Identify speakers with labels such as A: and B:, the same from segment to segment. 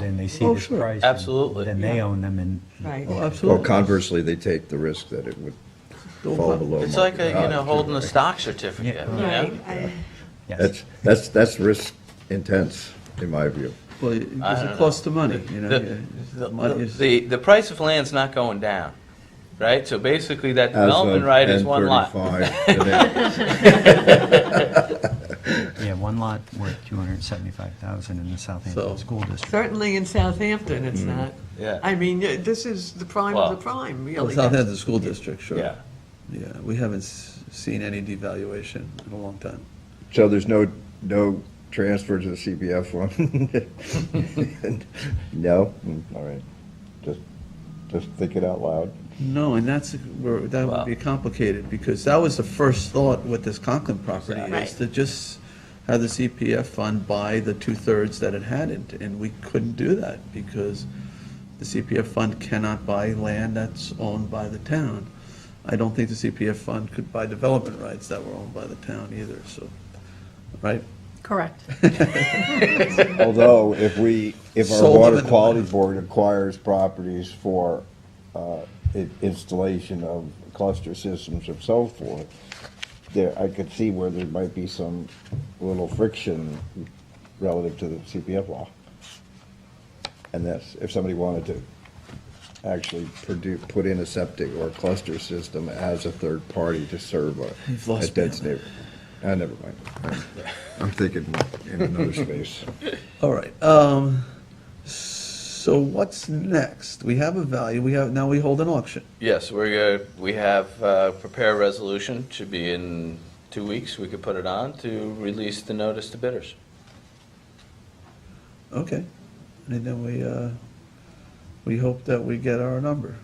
A: and they see
B: Oh,
A: this
B: sure.
A: price.
C: Absolutely.
A: Then they own them and.
B: Right.
A: Well,
B: Oh,
D: Well,
B: absolutely.
D: conversely, they take the risk that it would fall below.
C: It's like, a
D: market
C: you know,
D: value,
C: holding a
D: right?
C: stock certificate, you
B: Right.
C: know?
B: I-
A: yes.
D: That's, that's, that's risk intense, in my view.
B: Well, it-
C: I
B: because
C: don't
B: it
C: know.
B: costs the money, you know.
C: The,
B: yeah.
C: the-
B: Money is-
C: the, the price of land's not going down, right? So basically, that
D: As
C: development
D: of
C: right is one lot.
D: 10:35 today.
A: Yeah, one lot worth two hundred and seventy-five thousand in the Southampton
B: So-
A: School District.
E: Certainly in Southampton, it's not.
C: Yeah,
E: I mean, uh, this is the prime of the
C: Well-
E: prime,
B: Well,
E: really.
B: Southampton School District, sure.
C: yeah.
B: Yeah, we haven't s- seen any devaluation in a long time.
D: So there's no, no transfer to the CPF one? No? Mm, All right. Just, just think it out loud.
B: No, and that's, where, that would be complicated, because that was the first thought with this Conklin property, is
E: Right.
B: to just have the CPF fund buy the two-thirds that it hadn't, and we couldn't do that, because the CPF fund cannot buy land that's owned by the town. I don't think the CPF fund could buy development rights that were owned by the town either, so, right?
F: Correct.
D: Although, if we, if our
B: Sold them in
D: water
B: the
D: quality
B: winter.
D: board acquires properties for uh, i- installation of cluster systems and so forth, there, I could see where there might be some little friction relative to the CPF law. And that's, if somebody wanted to actually produce, put in a septic or a cluster system as a third party to serve
B: You've
D: a, a
B: lost me
D: dense
B: on that.
D: neighborhood. Ah, never mind. I'm- I'm thinking in another space.
B: All right, um, so what's next? We have a value, we have, now we hold an auction.
C: Yes, we're, gonna- we have, uh, prepare a resolution, should be in two weeks, we could put it on to release the notice to bidders.
B: Okay, and then we, uh, we hope that we get our number.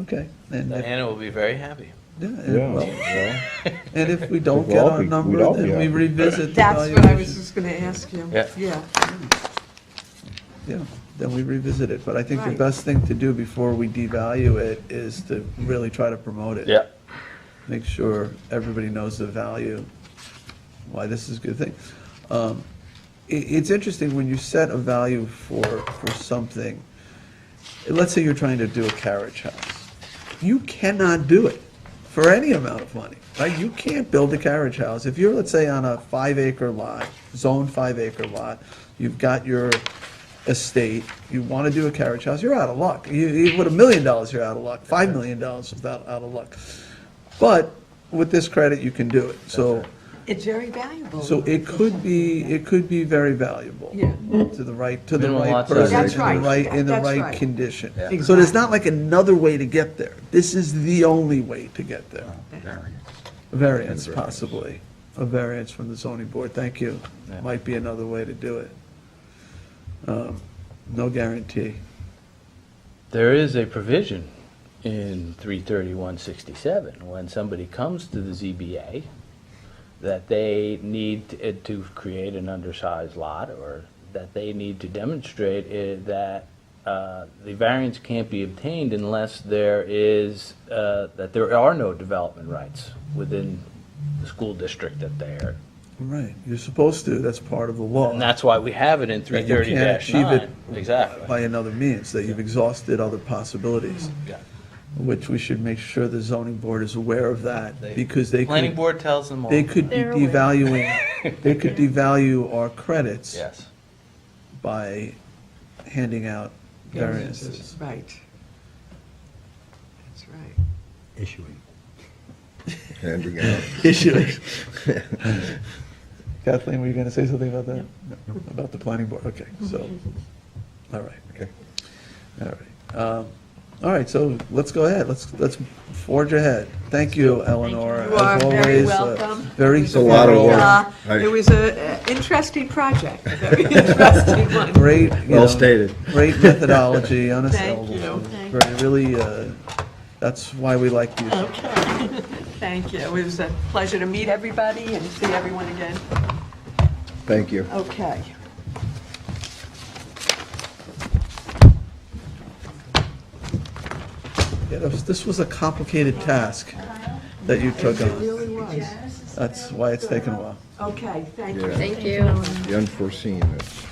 B: Okay, and if,
C: Diana will be very happy.
B: yeah,
D: Yeah,
B: and well,
D: well.
B: and if we don't
D: We'd
B: get
D: all
B: our
D: be-
B: number,
D: we'd all be
B: then we
D: happy.
B: revisit the
E: That's what I was
B: valuation.
E: just going to ask you.
C: Yeah.
E: Yeah.
B: Yeah, then we revisit it, but I think the
E: Right.
B: best thing to do before we devalue it is to really try to promote it. make sure everybody knows the value, why this is a good thing. Um, i it's interesting when you set a value for, for something, let's say you're trying to do a carriage house. You cannot do it for any amount of money, right? You can't build a carriage house. If you're, let's say, on a five acre lot, zone five acre lot, you've got your estate, you want to do a carriage house, you're out of luck. You, you, with a million dollars, you're out of luck. Five million dollars is out, out of luck. But with this credit, you can do it. So,
E: It's very valuable.
B: so it could be, it could be very valuable.
E: Yeah.
B: To the right, to the
C: Minimum
B: right
C: lot size.
B: person,
E: That's
B: in the
E: right.
B: right, in the
E: That's
B: right
E: right.
B: condition.
E: Yeah.
B: So there's not like another way to get there. This is the only way to get there. Variance possibly, a variance from the zoning board, thank you.
A: Yeah.
B: Might be another way to do it. Um, No guarantee.
C: There is a provision in 33167, when somebody comes to the ZBA, that they need it to create an undersized lot, or that they need to demonstrate it, that uh, the variance can't be obtained unless there is, uh, that there are no development rights within the school district that they are.
B: Right, you're supposed to, that's part of the law.
C: And that's why we have it in
B: That you can't
C: 330-9.
B: achieve it
C: Exactly.
B: By another means, that you've exhausted other possibilities,
C: Yeah.
B: which we should make sure the zoning board is aware of
C: They-
B: that, because they
C: Planning
B: could,
C: board tells them all.
B: they could be
F: They're aware.
B: devaluing, they could devalue our credits
C: Yes.
B: by handing out variances.
E: Right. That's right.
A: Issuing.
D: Handing out.
B: issues. Kathleen, were you going to say something about that? No, About the planning board, okay,
E: Mm-hmm.
B: so, all right.
D: Okay.
B: All right. Um, All right, so let's go ahead, let's, let's forge ahead. Thank you, Eleanor.
E: You are
B: as
E: very
B: always, uh,
E: welcome.
B: Very
D: a lot of
B: thorough,
D: work.
E: Uh,
D: Right.
E: It was an interesting project, a very interesting one.
B: Great. you
D: Well
B: know,
D: stated.
B: Great methodology, unassailable.
E: you.
B: Very- Really, uh, that's why we like you.
E: Oh. Thank you. It was a pleasure to meet everybody and see everyone again.
D: Thank you.
E: Okay.
B: Yeah, that was- This was a complicated task that you took
E: It
B: on.
E: really was.
B: That's why it's taken a while.
E: Okay, thank you.
D: Yeah,
F: Thank you.
D: the unforeseen. It's-